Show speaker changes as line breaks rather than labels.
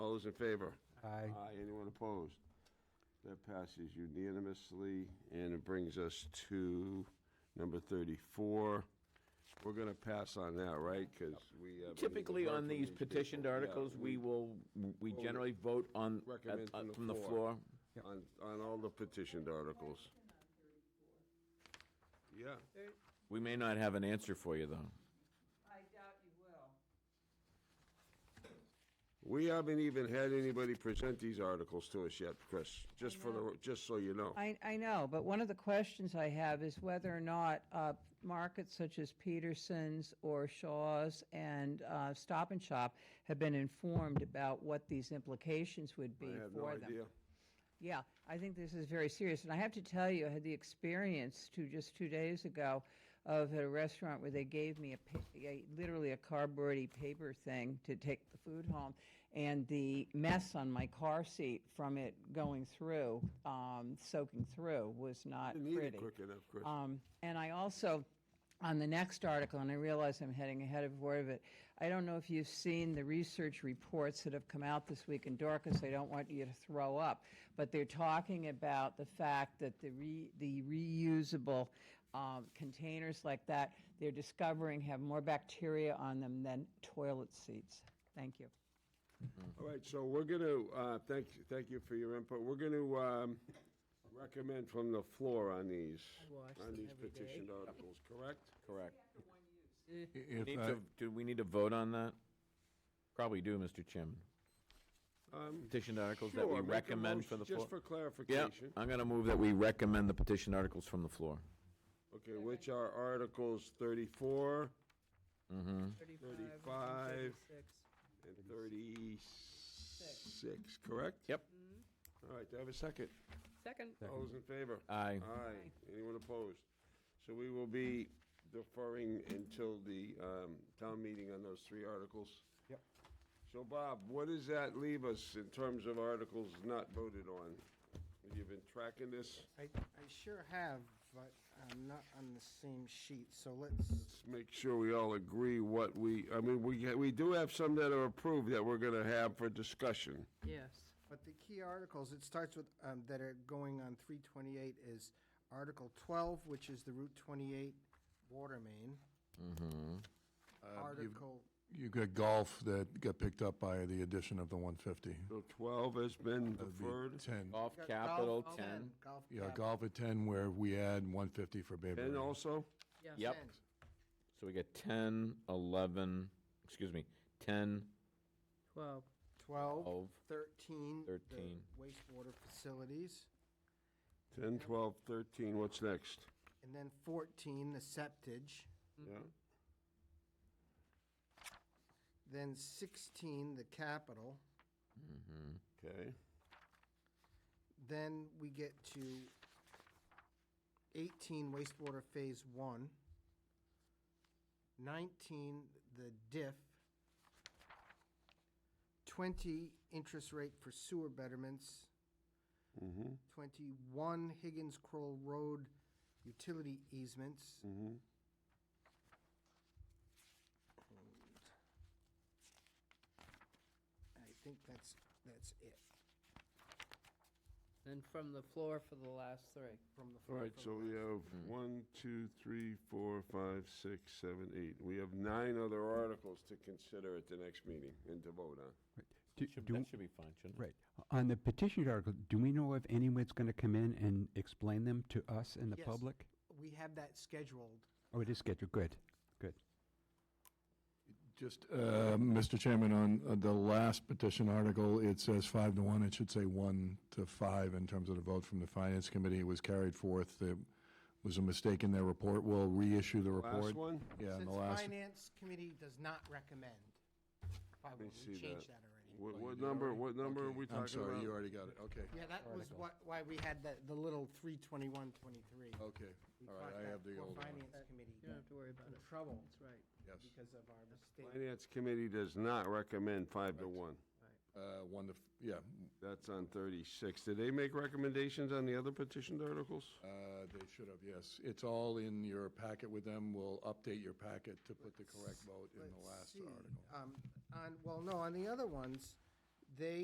those in favor?
Aye.
Aye. Anyone opposed? That passes unanimously, and it brings us to number 34. We're going to pass on that, right? Because we have.
Typically, on these
people.
petitioned
Yeah,
articles, we will, we
Well,
generally vote on, at-
recommend
uh,
from the
from the
floor.
floor.
On, on all the petitioned articles. Yeah.
We may not have an answer for you, though.
I doubt you will.
We haven't even had anybody present these articles to us yet, Chris, just for the, just so you know.
I, I know, but one of the questions I have is whether or not uh, markets such as Peterson's or Shaw's and uh, Stop and Shop have been informed about what these implications would
I
be
have no
for them.
idea.
Yeah, I think this is very serious. And I have to tell you, I had the experience to just two days ago of at a restaurant where they gave me a, pa- a literally a cardboardy paper thing to take the food home, and the mess on my car seat from it going through, um, soaking through, was not
Didn't
pretty.
eat it quick enough, Chris.
Um, and I also, on the next article, and I realize I'm heading ahead of word of it, I don't know if you've seen the research reports that have come out this week, and Dorcas, I don't want you to throw up, but they're talking about the fact that the re, the reusable, um, containers like that, they're discovering have more bacteria on them than toilet seats. Thank you.
All right, so we're going to, thank, thank you for your input. We're going to recommend from the floor on these,
watch
on
them
these
every day.
petitioned articles, correct?
Correct.
If,
Need
I-
to- Do we need to vote on that? Probably do, Mr. Chairman.
Um,
Petitioned articles that
sure,
we
make a
recommend
motion
for the floor.
Just for
Yeah,
clarification.
I'm going to move that we recommend the petitioned articles from the floor.
Okay, which are Articles 34
Mm-hmm.
35. and 36, correct?
Yep.
All right, do I have a second?
Second.
All those in favor?
Aye.
Aye. Anyone opposed? So we will be deferring until the um, town meeting on those three articles.
Yep.
So Bob, what does that leave us in terms of articles not voted on? You've been tracking this?
I, I sure have, but I'm not on the same sheet, so let's,
Let's make sure we all agree what we, I mean, we, ha- we do have some that are approved that we're going to have for discussion.
Yes.
but the key articles, it starts with, um, that are going on three twenty-eight is Article twelve, which is the Route twenty-eight water main. Article,
Uh, Um, you've got golf that got picked up by the addition of the 150.
So 12 has been
That'd be
deferred.
10.
Golf
Got golf,
capital, 10.
golf
Yeah,
cap,
golf at 10 where we add 150 for Bayberry.
And also,
10.
Yep. So we get 10, 11, excuse me, 10,
Twelve.
Twelve,
12,
thirteen. the
13.
Wastewater facilities,
10, 12, 13, what's next?
and then fourteen, the septage,
Yeah.
then sixteen, the capital.
Okay.
Then we get to 18 wastewater phase one, 19 the diff, 20 interest rate for sewer betterments,
Mm-hmm,
21 Higgins Kroll Road utility easements,
mm-hmm.
and I think that's, that's it
And from the floor for the last three.
from the.
All
floor
right,
for
so
the
we
last.
have
Mm.
Mm-hmm.
one, two, three, four, five, six, seven, eight. We have nine other articles to consider at the next meeting and to vote on.
Do-
Should-
do-
that should be fine, shouldn't it?
Right. On the petition article, do we know if anyone's going to come in and explain them to us and the
Yes.
public?
We have that scheduled.
Oh, it is scheduled. Good. Good.
Just, uh, Mr. Chairman, on uh, the last petition article, it says five to one. It should say one to five in terms of the vote from the Finance Committee. It was carried forth. There was a mistake in their report. We'll reissue the report.
Last one?
Yeah, in
Since
the last.
Finance Committee does not recommend, why
me
would we
see
change
that.
that already?
What,
Oh, you
what
did
number,
already?
what number are
Okay.
we
I'm
talking
sorry,
about?
you already got it. Okay.
Yeah, that was
Article.
what, why we had the, the little three twenty-one, twenty-three.
Okay.
We
Oh, All right,
caught
I
that
have the
poor
old one.
Finance committee
You don't have to worry about
in
it.
trouble
That's right.
Yes.
because of our mistake.
Finance Committee does not recommend five to
Correct.
one.
Uh, One to, f- yeah,
That's on thirty-six. Did they make recommendations on the other petitioned articles?
uh, they should have, yes. It's all in your packet with them. We'll update your packet to put the correct vote in the
Let's
last
see,
article.
um, On, well, no, on the other ones, they